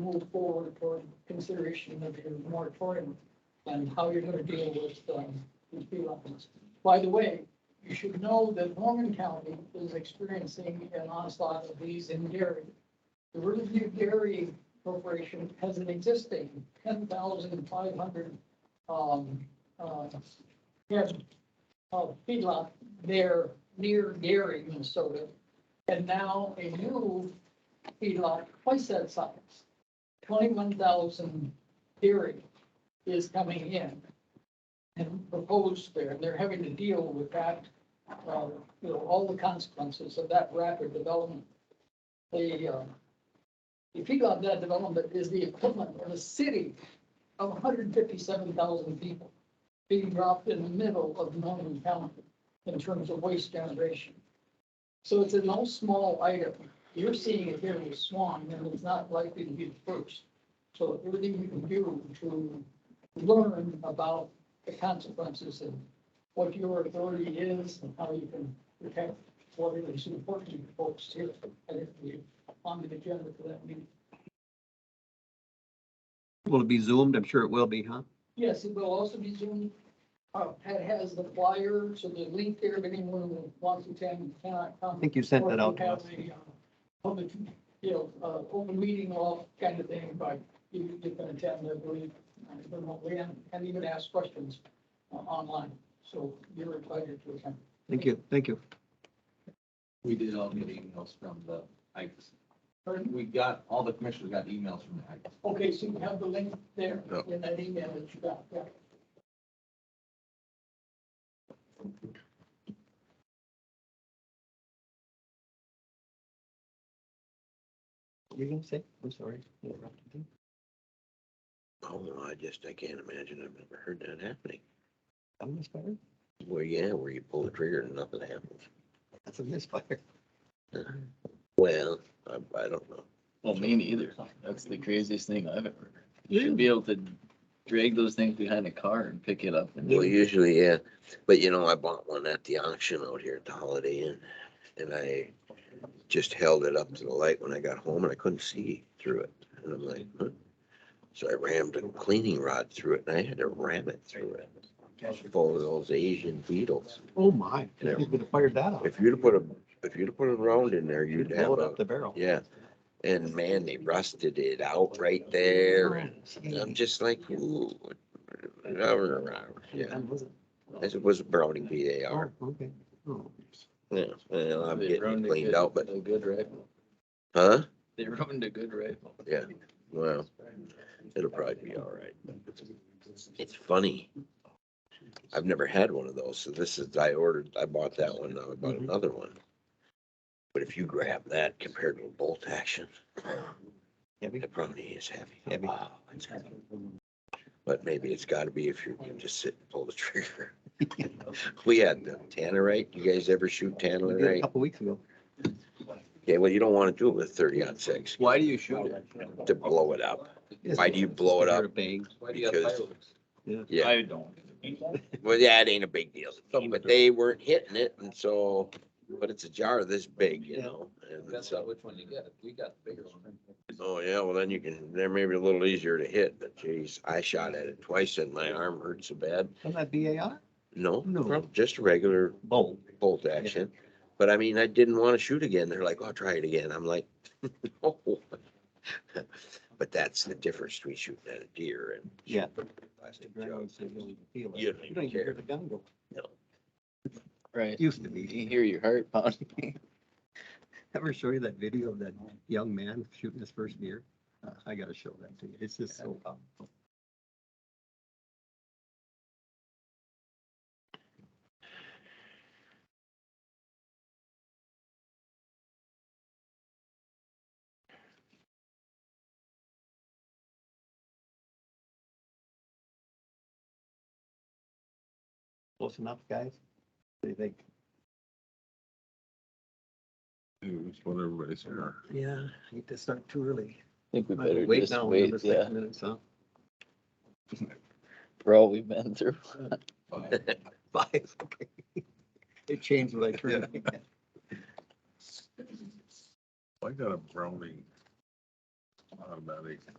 move forward toward consideration of your moratorium and how you're gonna deal with, um, these feelings. By the way, you should know that Norman County is experiencing an onslaught of these in dairy. The Riverview Dairy Corporation has an existing ten thousand five hundred, um, uh, head of feedlot there near Gary, Minnesota. And now a new feedlot twice that size, twenty-one thousand dairy is coming in and proposed there, and they're having to deal with that, uh, you know, all the consequences of that rapid development. The, uh, the feedlot that development is the equivalent of a city of hundred and fifty-seven thousand people being dropped in the middle of Norman County in terms of waste generation. So it's a no small item. You're seeing it here with Swan, and it's not likely to be the first. So everything you can do to learn about the consequences and what your authority is and how you can protect what is important to you folks here. I think we on the agenda for that meeting. Will it be zoomed? I'm sure it will be, huh? Yes, it will also be Zoom. Uh, Pat has the flyer, so the link there, if anyone who wants to attend cannot come. I think you sent that out to us. Or if you have a, uh, Public, you know, uh, open meeting law kind of thing, but you you can attend, I believe, uh, remotely and, and even ask questions uh, online. So you're invited to attend. Thank you, thank you. We did all get emails from the Ikes. Pardon? We got, all the commissioners got emails from the Ikes. Okay, so you have the link there Yeah. in that email that you got, yeah. What were you gonna say? I'm sorry. interrupted you. Oh, no, I just, I can't imagine. I've never heard that happening. A misfire? Where, yeah, where you pull the trigger and nothing happens. That's a misfire. Well, I, I don't know. Well, me neither. That's the craziest thing I've ever heard. You should be able to drag those things behind a car and pick it up. and- Well, usually, yeah, but you know, I bought one at the auction out here at the Holiday Inn. And I just held it up to the light when I got home and I couldn't see through it. And I'm like, huh? So I rammed a cleaning rod through it and I had to ram it through it. Full of those Asian beetles. Oh, my. Yeah. Who's gonna fire that up? If you'd have put a, if you'd have put a round in there, you'd have Blow it a up the barrel. Yeah, and man, they rusted it out right Oh, there, and I'm just like, ooh. Yeah, as it was a Browning B A R, Okay. Oh. yeah, well, I'm They getting ruined it a cleaned good- out, but, A good rifle. huh? They ruined a good rifle. Yeah, well, it'll probably be all right. It's funny. I've never had one of those, so this is, I ordered, I bought that one, now I bought Mm-hmm. Mhm. another one. But if you grab that compared to a bolt action, Heavy? it probably is heavy. Heavy. Wow, it's heavy. But maybe it's gotta be if you can just sit and pull the trigger. We had the tannerite. You guys ever shoot We did A tannerite? couple weeks ago. Okay, well, you don't wanna do it with thirty on six Why do you shoot it? to blow it up. Why do you blow it Hear up? a Bang. Why do you have Because- fireworks? Yeah, I don't. well, that ain't a big deal. But they weren't hitting it and so, but it's a jar this big, you know? And Depends on so, which one you get. We got the bigger one. oh yeah, well then you can, they're maybe a little easier to hit, but geez, I shot at it twice and my arm hurt so bad. Isn't that BAR? No, No. prob- just a regular Bolt. bolt action. But I mean, I didn't want to shoot again. They're like, oh, try it again. I'm like, no. But that's the difference between shooting at a deer and. Yeah. shooting at a plastic You jug. don't even You don't even hear care. the gun go. Right. Used to You be. hear your heart pounding. Ever show you that video of that young man shooting his first deer? Uh, I gotta show that to you. It's just so um, powerful. Close enough, guys? What do you think? Yeah, I hate to start too early. I think we Might better wait just now wait, another six yeah, minutes, huh? for all we've been through. Five, okay. It changed what I turned. I got a Browning about it.